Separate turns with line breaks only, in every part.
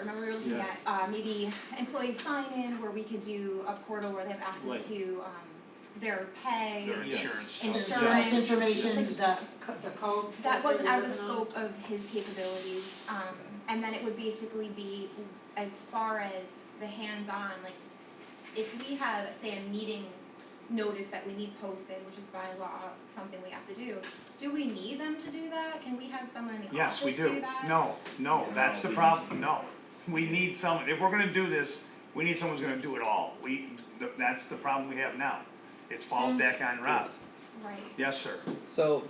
Remember we were looking
Yeah.
at, uh, maybe employee sign-in where we could do a portal where they have
Right.
access to, um, their pay.
their
Yeah.
insurance.
Insurance.
Insurance information, the co- the code.
That wasn't out of the
that you're working
scope of his capabilities, um, and then it would basically be as far as the hands-on, like, if we have, say, a meeting notice that we need posted, which is by law something we have to do, do we need them to do that? Can we have someone in the
Yes,
office
we
do
do.
that?
No, no,
No,
that's the
we-
problem, no. We need someone, if we're gonna do this, we need someone who's gonna do it all. We, th- that's the problem we have now. It falls back on Rob.
Right.
Yes, sir.
So,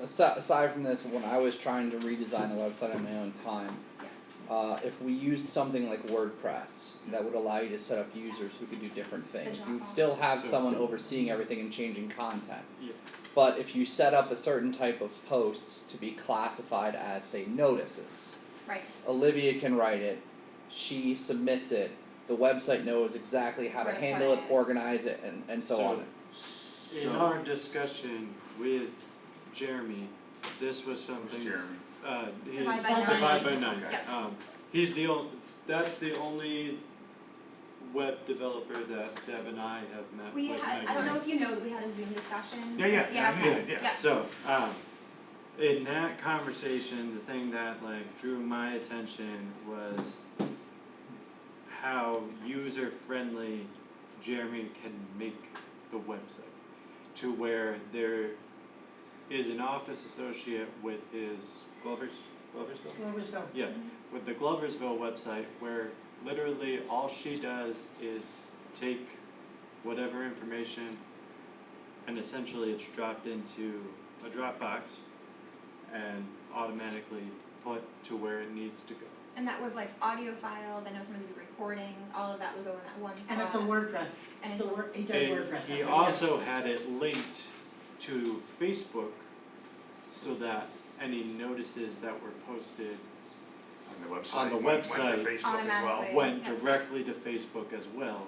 aside, aside from this, when I was trying to redesign the website on my own time, uh, if we used something like WordPress, that would allow you to set up users who could do different things. You'd still have
Still.
someone overseeing everything and changing content.
Yeah.
But if you set up a certain type of posts to be classified as, say, notices,
Right,
Olivia can write it, she submits it, the website knows exactly how to
Right,
handle it,
right.
organize it, and, and so
So-
on.
In
So,
our discussion with Jeremy, this was something,
Jeremy,
uh, his.
Divide by nine.
divide by nine,
Yep.
um, he's the only, that's the only web developer that Deb and I have met
we
with
had, I don't know if you know, that we had a Zoom discussion.
Yeah, yeah, yeah, I
okay.
knew it, yeah.
So, um, in that conversation, the thing that like drew my attention was how user friendly Jeremy can make the website to where there is an office associate with his Glover's Gloversville?
on. Gloversville.
Yeah, with the Gloversville website where literally all she does is take whatever information and essentially it's dropped into a Dropbox and automatically put to where it needs to go.
And that was like audio files, I know somebody did recordings, all of that would go in that one spot.
And it's a WordPress,
And
it's a
it's-
word, he does
And
WordPress, that's what
he
does.
also had it linked to Facebook so that any notices that were posted
On the website.
On the
went- Went
website.
to Facebook as well.
Automatically.
went
Yeah.
directly to Facebook as well.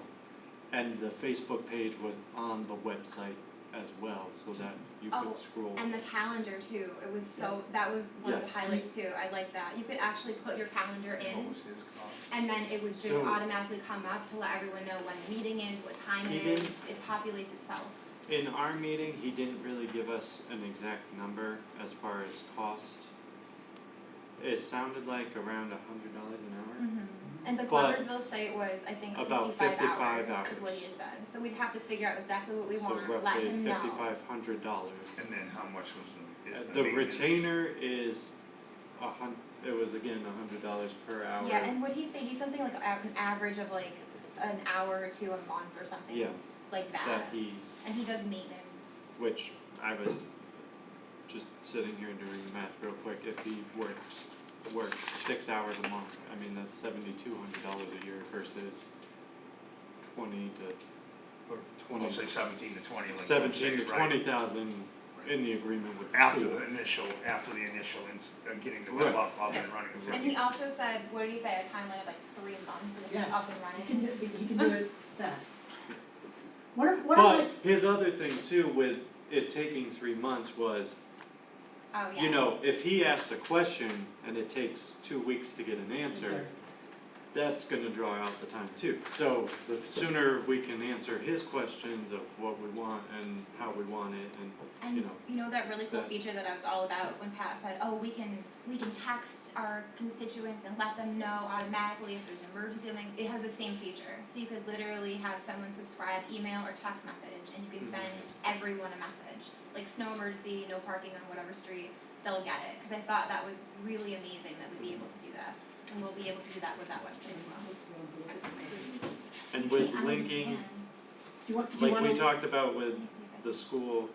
And the Facebook page was on the website as well, so that you
Oh,
could scroll.
And the calendar too, it was so, that was one of the
Yes.
highlights too, I like that, you could actually put your calendar
what
in,
was his call?
and then it would just
Oh. So-
automatically come up to let everyone know when the meeting is, what time it
Even-
is, it populates itself.
In our meeting, he didn't really give us an exact number as far as cost. It sounded like around a hundred dollars
Mm,
an
And the
Mm-hmm. But-
Gloversville site was, I think,
About
fifty-five
55
hours is what
hours.
he had said, so we'd have to figure out exactly what
hour,
we
so
want, let
roughly
him know.
fifty-five hundred dollars. Uh,
And then how much was, is the
The
maintenance?
retainer is a hun, it was again a hundred dollars per hour.
Yeah, and what he say? He's something like av- an average of like an hour or two a month or something
Yeah.
like that.
That he
and he does maintenance.
Which I was just sitting here doing math real quick, if he works, worked six hours a month, I mean, that's seventy-two hundred dollars a year versus twenty to
Or
twenty,
We'll say seventeen to twenty. like
seventeen
you
to
said, right?
twenty thousand in the agreement with the
After
school.
the initial, after the initial, ins- uh, getting the
Right.
web up, up and
Yeah.
running.
And he also said, what did he say? A timeline of like three months and it's
Yeah.
up and
He can
running.
do, he can do it best. What, I- what I
But
like,
his other thing too with it taking three months was,
Oh yeah.
you know, if he asks a question and it takes two weeks to get an answer,
Answer.
that's gonna draw out the time too. So the sooner we can answer his questions of what we want and how we want it and,
and
you know.
you know that really cool
that-
feature that I was all about when Pat said, "Oh, we can we can text our constituents and let them know automatically if there's an emergency." Like it has the same feature, so you could literally have someone subscribe email or text message, and you can
Mhm.
send everyone a message. Like snow emergency, no parking on whatever street, they'll get it. Because I thought that was really amazing that we'd be able to do that, and we'll be able to do that with that website as well.
And
You
with
can't- I don't
linking,
think
do you want, do you
like
wanna?
we talked about
you
with
can. Let me see if I can-
the school,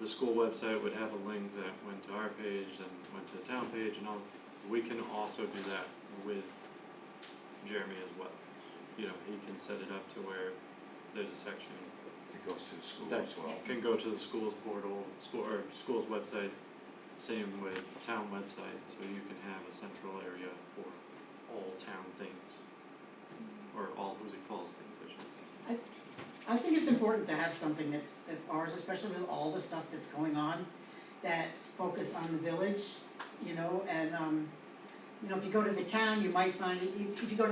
the school website would have a link that went to our page and went to the town page and all. We can also do that with Jeremy as well. You know, he can set it up to where there's a section
It goes to the school
That-
as well.
can go to the school's portal, school or school's website, same with town website, so you can have a central area for all town things. Or all Hoosick Falls things, I should say.
I think it's important to have something that's, that's ours, especially with all the stuff that's going on, that's focused on the village, you know, and, um, you know, if you go to the town, you might find, it. if if you go to